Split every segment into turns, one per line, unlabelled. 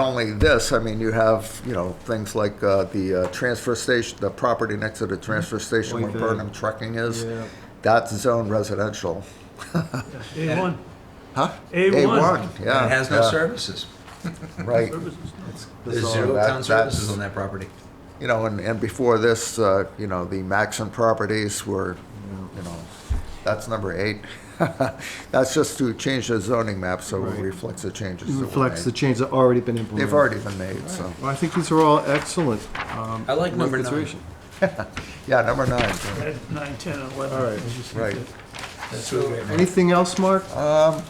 only this, I mean, you have, you know, things like uh, the uh, transfer station, the property next to the transfer station where
Mm-hmm. Like the-
Burnham Trucking is.
Yeah.
That's zone residential.
A1.
Huh?
A1.
A1, yeah.
It has no
yeah,
services.
Right.
Services, no.
The
There's
zone,
zero
that-
town
that's-
services on that property.
You know, and, and before this, uh, you know, the Maxon properties were, you know, that's number eight. That's just to change the zoning map so it
Right.
reflects the changes that were
Reflects the
made.
change that already been implemented.
They've already been made, so,
Well, I think these are all excellent. um,
I like number nine.
yeah, number nine,
Red, nine, 10, and 11.
All right,
As you said.
right.
That's really great.
Anything else, Mark?
Uh,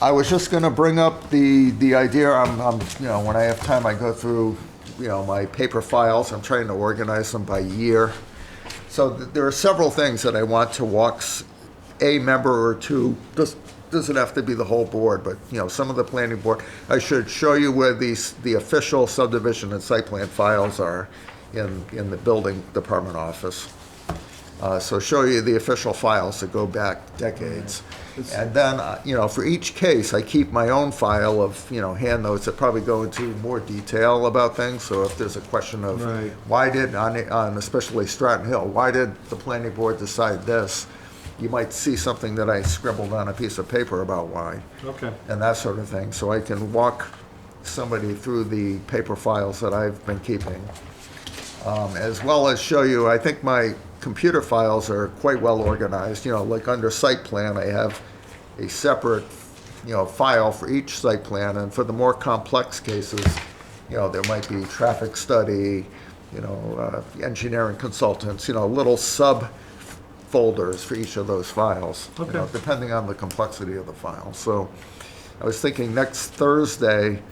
I was just gonna bring up the, the idea, I'm, I'm, you know, when I have time, I go through, you know, my paper files, I'm trying to organize them by year. So th- there are several things that I want to walk s- a member or two, does, doesn't have to be the whole board, but, you know, some of the planning board. I should show you where these, the official subdivision and site plan files are in, in the building department office. Uh, So show you the official files that go back decades. And then, uh, you know, for each case, I keep my own file of, you know, hand notes that probably go into more detail about things. So if there's a question of,
Right.
why did, on, on especially Stratton Hill, why did the planning board decide this? You might see something that I scribbled on a piece of paper about why,
Okay.
and that sort of thing. So I can walk somebody through the paper files that I've been keeping um, as well as show you, I think my computer files are quite well organized, you know, like under site plan, I have a separate, you know, file for each site plan, and for the more complex cases, you know, there might be traffic study, you know, uh, engineering consultants, you know, little subfolders for each of those files. you know,
Okay.
depending on the complexity of the file. So I was thinking next Thursday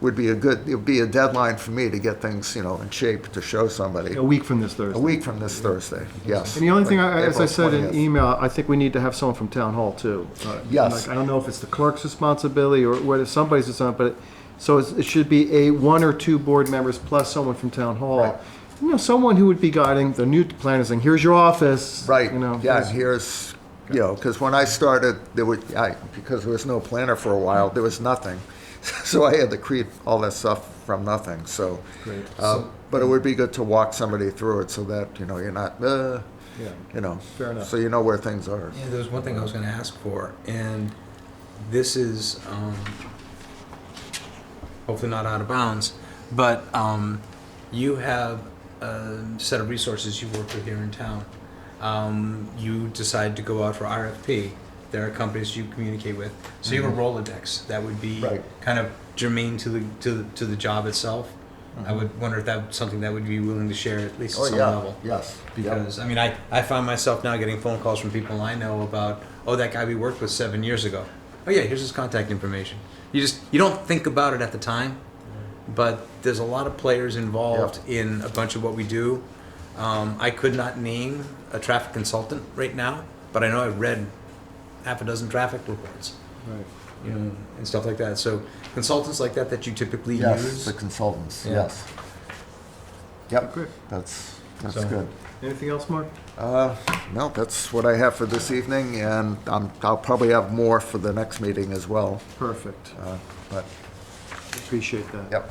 would be a good, it would be a deadline for me to get things, you know, in shape to show somebody.
A week from this
A
Thursday.
week from this Thursday, yes.
And the only thing, I-
Like
as I
April
said in
20th.
email, I think we need to have someone from town hall too. Uh,
Yes.
like, I don't know if it's the clerk's responsibility or whether somebody's responsibility, but, it- so it's- it should be a one or two board members plus someone from town
Right.
hall. You know, someone who would be guiding the new planners, saying, here's your office.
Right,
You know.
yeah, and here's, you know, because when I started, there was, I, because there was no planner for a while, there was nothing. So I had to create all that stuff from nothing, so.
Great.
uh, But it would be good to walk somebody through it so that, you know, you're not, uh,
Yeah.
you know.
Fair enough.
So you know where things are.
Yeah, there was one thing I was going to ask for, and this is um, hopefully not out of bounds, but um, you have a set of resources you work with here in town. Um, you decide to go out for RFP. There are companies you communicate with, so you have a Rolodex that would be
Mm-hmm. Right.
kind of germane to the to the, to the job itself. I would wonder if that's something that would be willing to share at least
Mm-hmm. Oh,
at some
yeah,
level
yes. yep.
because I mean I, I find myself now getting phone calls from people I know about oh that guy we worked with seven years ago oh yeah here's his contact information you just you don't think about it at the time but there's a lot of players involved in a bunch of what we do um, I could not name a traffic consultant right now but I know I've read half a dozen traffic reports
Right.
you
Mm.
know and stuff like that so consultants like that that you typically
Yes,
use
the consultants,
Yeah.
yes. Yep,
Great.
that's, that's
So-
good.
Anything else, Mark?
Uh, No, that's what I have for this evening, and I'm- I'll probably have more for the next meeting as well,
Perfect.
uh, but,
Appreciate that.
yep.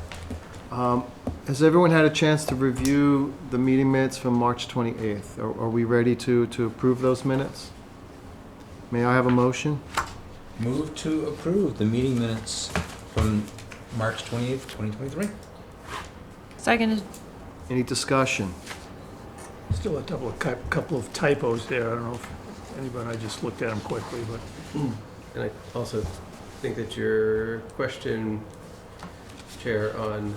Has everyone had a chance to review the meeting minutes from March 28th? Are are we ready to, to approve those minutes? May I have a motion?
move to approve the meeting minutes from March 28th 2023
Seconded.
Any discussion?
Still a couple of, cou- couple of typos there. I don't know if anybody, I just looked at them quickly, but
And I also think that your question, Chair, on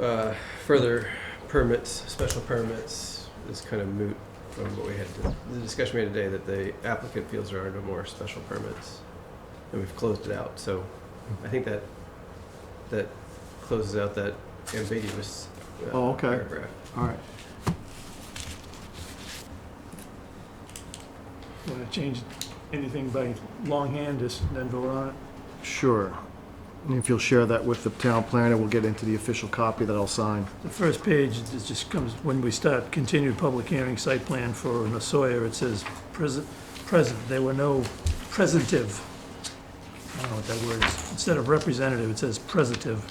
uh, further permits, special permits, is kind of moot from what we had, the discussion we had today, that the applicant feels there are no more special permits, and we've closed it out. So I think that, that closes out that ambiguous uh,
Oh, okay.
paragraph.
All right.
want to change anything by longhand, just then vote on it.
Sure. And if you'll share that with the town planner, we'll get into the official copy that I'll sign.
The first page, it just comes, when we start continued public hearing site plan for Nasoya, it says present, present, there were no presentive. don't know what that word is. Instead of representative, it says presentive.